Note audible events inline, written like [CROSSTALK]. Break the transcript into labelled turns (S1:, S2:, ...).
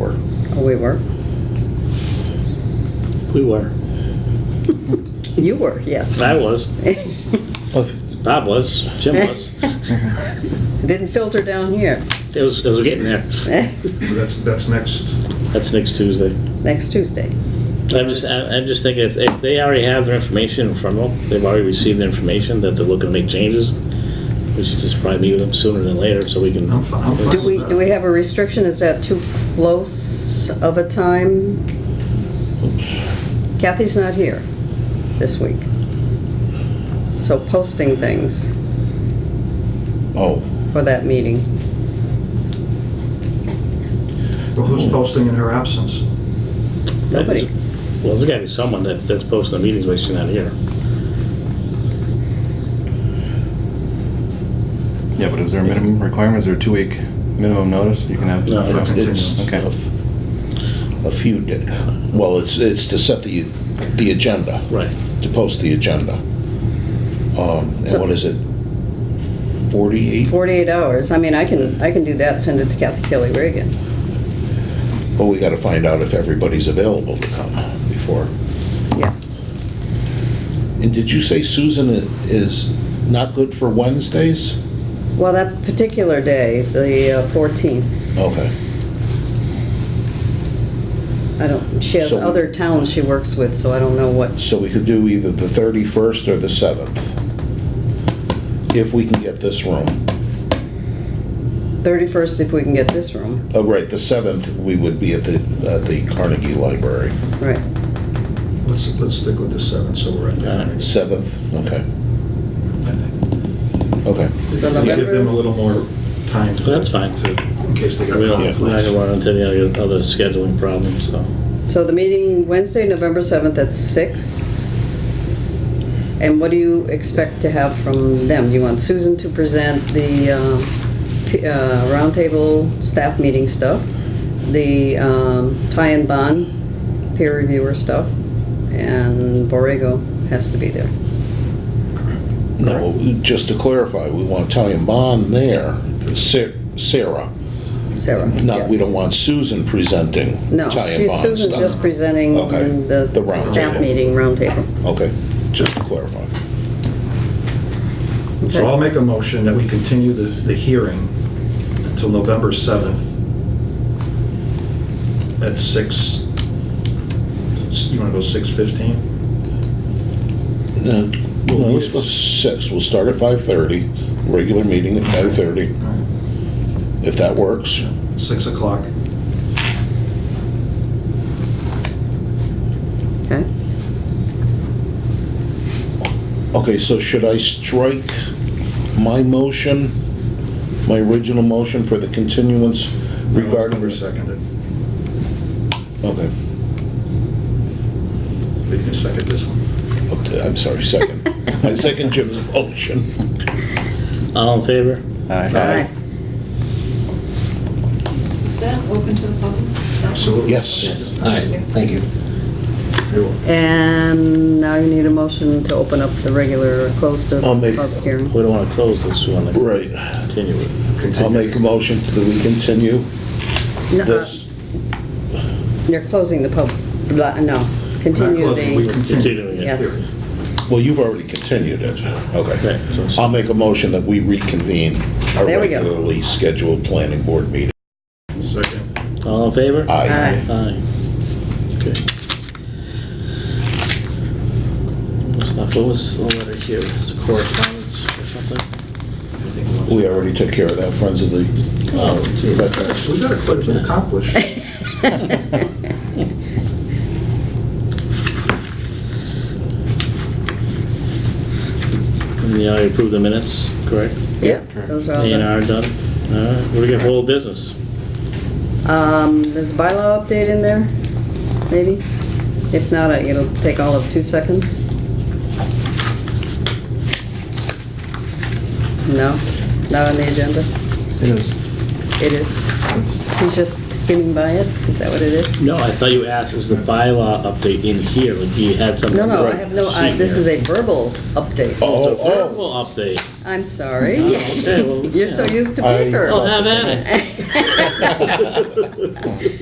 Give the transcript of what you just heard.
S1: Well, Oh, we were.
S2: We were.
S1: You were, yes. [LAUGHS]
S2: I was.
S3: Well,
S2: Bob was. Jim was.
S1: Didn't filter down here. [LAUGHS]
S2: It was, it was getting there.
S4: That's, that's next.
S2: That's next Tuesday.
S1: Next Tuesday.
S2: I'm just, I- I'm just thinking, if, if they already have their information in front of them, they've already received the information that they're looking to make changes, we should just probably meet with them sooner than later, so we can.
S1: Oh,
S4: I'm fine, I'm fine.
S1: Do we, do we have a restriction? Is that too close of a time? Kathy's not here this week. So posting things
S3: Oh,
S1: for that meeting.
S4: Well, who's posting in her absence?
S1: Nobody.
S2: Well, there's gotta be someone that, that's posting the meetings, but she's not here.
S3: yeah, but is there a minimum requirement? Is there a two-week minimum notice? You can have.
S2: No,
S4: For continuance.
S5: It's
S3: Okay.
S5: a a few, da- well, it's, it's to set the, the agenda,
S2: Right.
S5: to post the agenda. Um, And what is it? 48?
S1: 48 hours. I mean, I can, I can do that, send it to Kathy Kelly Reagan.
S5: Well, we gotta find out if everybody's available to come before.
S1: Yeah.
S5: And did you say Susan i- is not good for Wednesdays?
S1: Well, that particular day, the uh, 14th,
S5: Okay.
S1: I don't, she has
S5: So-
S1: other towns she works with, so I don't know what
S5: So we could do either the 31st or the 7th, if we can get this room.
S1: 31st if we can get this room,
S5: Oh, right, the 7th, we would be at the, at the Carnegie Library.
S1: right.
S4: Let's, let's stick with the seventh, so we're at the.
S2: Uh,
S5: 7th, okay,
S4: I think.
S5: okay.
S1: So
S4: Give them a
S1: November,
S4: little more time. to-
S2: That's fine.
S4: to- In case they got
S2: We don't, we're not gonna
S4: conflicts.
S2: run into any other- other scheduling problems, so.
S1: so the meeting Wednesday, November 7th at six. And what do you expect to have from them? You want Susan to present the um, p- uh, roundtable staff meeting stuff, the um, tie and bond peer reviewer stuff, and Borrego has to be there.
S5: No, just to clarify, we want Italian Bond there, Sa- Sarah.
S1: Sarah,
S5: Not, we
S1: yes.
S5: don't want Susan presenting
S1: No,
S5: Italian
S1: she's,
S5: Bond stuff.
S1: Susan's just presenting
S5: Okay,
S1: the
S5: the round
S1: staff
S5: table.
S1: meeting, roundtable.
S5: Okay, just to clarify.
S4: So I'll make a motion that we continue the, the hearing until November seventh at six, you wanna go six fifteen?
S5: No,
S4: Well,
S5: let's go
S4: yes.
S5: six, we'll start at 5:30, regular meeting at 5:30, if that works.
S4: Six o'clock.
S1: Okay,
S5: Okay, so should I strike my motion, my original motion for the continuance regarding?
S4: Number seconded.
S5: Okay,
S4: But you can second this one.
S5: Okay, I'm sorry, [LAUGHS] second. I second Jim's motion.
S2: All in favor?
S3: Aye.
S5: Aye.
S6: Is that open to the public?
S4: Absolutely.
S5: Yes.
S7: All right, thank you.
S4: You're welcome.
S1: and now you need a motion to open up the regular, close the
S5: I'll make-
S1: public hearing.
S2: We don't wanna close this one, like,
S5: Right.
S2: continue it.
S5: I'll make a motion that we continue
S1: No, uh,
S5: this.
S1: You're closing the public, no,
S4: We're not
S1: continue
S4: closing, we
S1: the,
S2: Continuing it.
S1: yes,
S5: Well, you've already continued it.
S2: Right,
S5: Okay.
S2: so it's-
S5: I'll make a motion that we reconvene our
S1: There we go.
S5: regularly scheduled planning board meeting.
S4: Second.
S2: All in favor?
S5: Aye.
S1: Aye.
S2: Aye. Okay. What's not- What was the letter here? It's a correspondence or something?
S5: We already took care of that, Friends of the uh, Veterans.
S4: We got a clip to accomplish.
S5: [LAUGHS]
S2: And you already approved the minutes, correct?
S1: [LAUGHS] yeah, those are all
S2: A and
S1: done.
S2: R done? All right, we're gonna hold business.
S1: Um, there's a bylaw update in there, maybe? If not, I- it'll take all of two seconds. No, not on the agenda,
S3: It is.
S1: it is. He's just skimming by it, is that what it is?
S2: No, I thought you asked, is the bylaw update in here? Like, do you had something?
S1: No, no, I
S2: right
S1: have no, I-
S2: sheet
S1: this is
S2: here?
S1: a verbal update.
S5: Oh,
S2: It's a
S5: oh,
S2: verbal update.
S1: I'm sorry.
S2: Okay, well,
S1: [LAUGHS] You're so
S2: yeah.
S1: used to
S5: I-
S1: [LAUGHS] paper.
S5: [LAUGHS]
S2: Well, have at it.